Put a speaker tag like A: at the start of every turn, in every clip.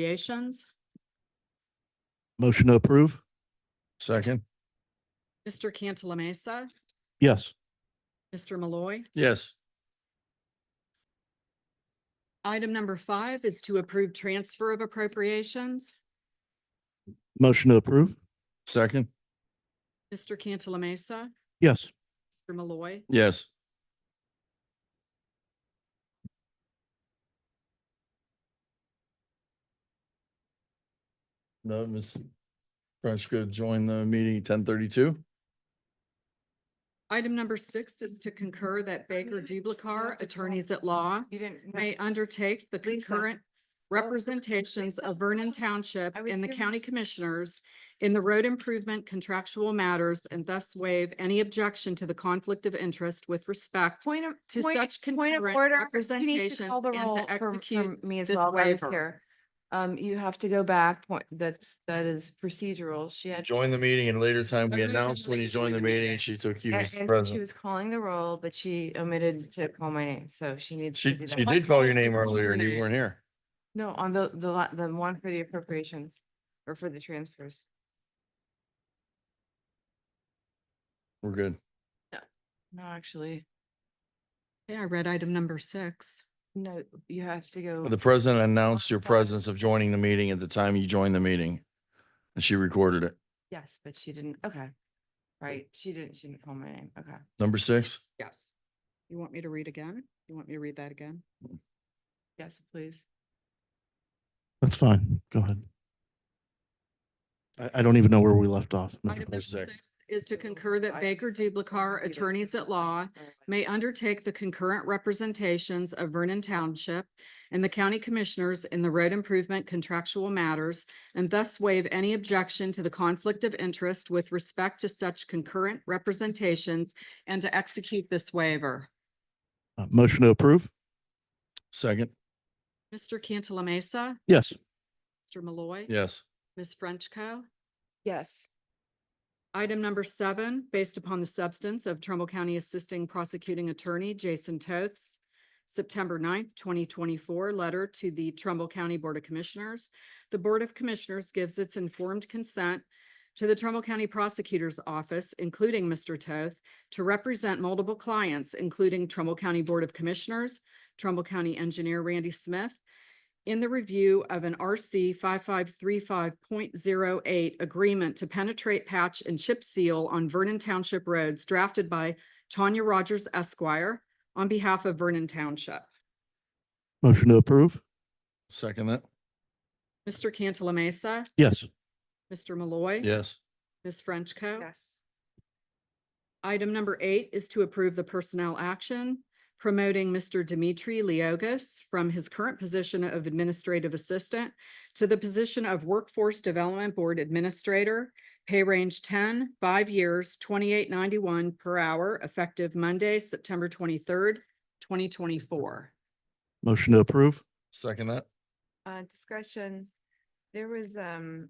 A: Appropriations.
B: Motion to approve. Second.
A: Mr. Cantala Mesa,
B: Yes.
A: Mr. Malloy.
B: Yes.
A: Item number five is to approve transfer of appropriations.
B: Motion to approve. Second.
A: Mr. Cantala Mesa,
B: Yes.
A: Mr. Malloy.
B: Yes. No, Ms. Frenchco, join the meeting ten thirty-two.
A: Item number six is to concur that Baker Dublicar, attorneys at law,
C: You didn't.
A: may undertake the
C: Lisa.
A: concurrent representations of Vernon Township
C: I was
A: and the
C: doing-
A: county commissioners in the road improvement contractual matters and thus waive any objection to the conflict of interest with respect
C: Point of,
A: to
C: point-
A: such
C: point of
A: concurrent
C: order. You need to
A: representations
C: call the
A: and to
C: roll for- for
A: execute
C: Me as
A: this
C: well, I was
A: waiver.
C: here. Um, you have to go back, point, that's, that is procedural. She had.
B: Join the meeting and later time we
C: Okay,
B: announced when you joined the meeting, she took you
C: and-
B: as
C: and She
B: president.
C: was calling the roll, but she omitted to call my name, so she needs. to
B: She,
C: do
B: she
C: that.
B: did call your name earlier and you weren't here.
C: No, on the, the, la- the one for the appropriations or for the transfers.
B: We're good.
C: No, actually,
A: Yeah, I read item number six.
C: no, you have to go.
B: The president announced your presence of joining the meeting at the time you joined the meeting. And she recorded it.
C: Yes, but she didn't, okay. Right, she didn't, she didn't call my name, okay.
B: Number six?
A: Yes. You want me to read again? You want me to read that again?
C: Yes, please.
B: That's fine. Go ahead. I, I don't even know where we left off. Mr.
A: Item number
B: President.
A: six is to concur that Baker Dublicar, attorneys at law,
C: Oh
A: may undertake the concurrent representations of Vernon Township and the county commissioners in the road improvement contractual matters and thus waive any objection to the conflict of interest with respect to such concurrent representations and to execute this waiver.
B: Uh, Motion to approve? Second.
A: Mr. Cantala Mesa,
B: Yes.
A: Mr. Malloy.
B: Yes.
A: Ms. Frenchco.
C: Yes.
A: Item number seven, based upon the substance of Trumbull County Assisting Prosecuting Attorney Jason Toth's September 9th, twenty twenty-four letter to the Trumbull County Board of Commissioners. The Board of Commissioners gives its informed consent to the Trumbull County Prosecutor's Office, including Mr. Toth, to represent multiple clients, including Trumbull County Board of Commissioners, Trumbull County Engineer Randy Smith, in the review of an RC five five three five point zero eight agreement to penetrate patch and chip seal on Vernon Township roads drafted by Tanya Rogers Esquire on behalf of Vernon Township.
B: Motion to approve? Second that?
A: Mr. Cantala Mesa,
B: Yes.
A: Mr. Malloy.
B: Yes.
A: Ms. Frenchco.
C: Yes.
A: Item number eight is to approve the personnel action promoting Mr. Dimitri Leogas from his current position of administrative assistant to the position of Workforce Development Board Administrator, pay range 10, five years, twenty-eight ninety-one per hour, effective Monday, September twenty-third, twenty twenty-four.
B: Motion to approve? Second that?
C: Uh, discussion, there was, um,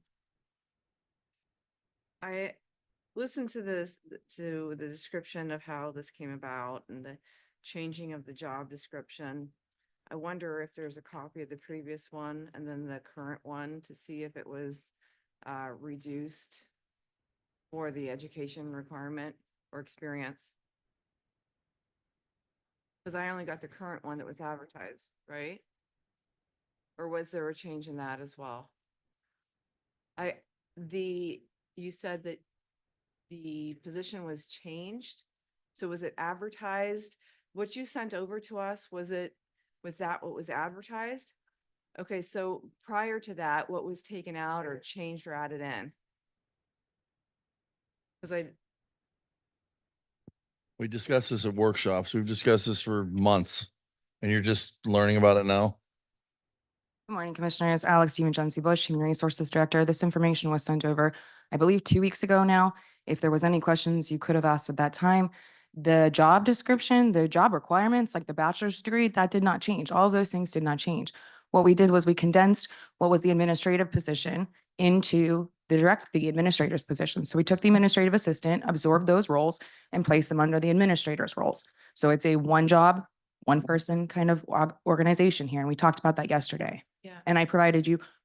C: I listened to this, to the description of how this came about and the changing of the job description. I wonder if there's a copy of the previous one and then the current one to see if it was, uh, reduced for the education requirement or experience. Cause I only got the current one that was advertised, right? Or was there a change in that as well? I, the, you said that the position was changed. So was it advertised? What you sent over to us, was it, was that what was advertised? Okay, so prior to that, what was taken out or changed or added in? Cause I,
B: We discussed this at workshops. We've discussed this for months. And you're just learning about it now?
D: Good morning, Commissioners. Alex DiMaggio Bush, Human Resources Director. This information was sent over, I believe, two weeks ago now. If there was any questions you could have asked at that time. The job description, the job requirements, like the bachelor's degree, that did not change. All of those things did not change. What we did was we condensed what was the administrative position into the direct, the administrator's position. So we took the administrative assistant, absorbed those roles, and placed them under the administrator's roles. So it's a one job, one person kind of org- organization here, and we talked about that yesterday.
C: Yeah.
D: And I provided you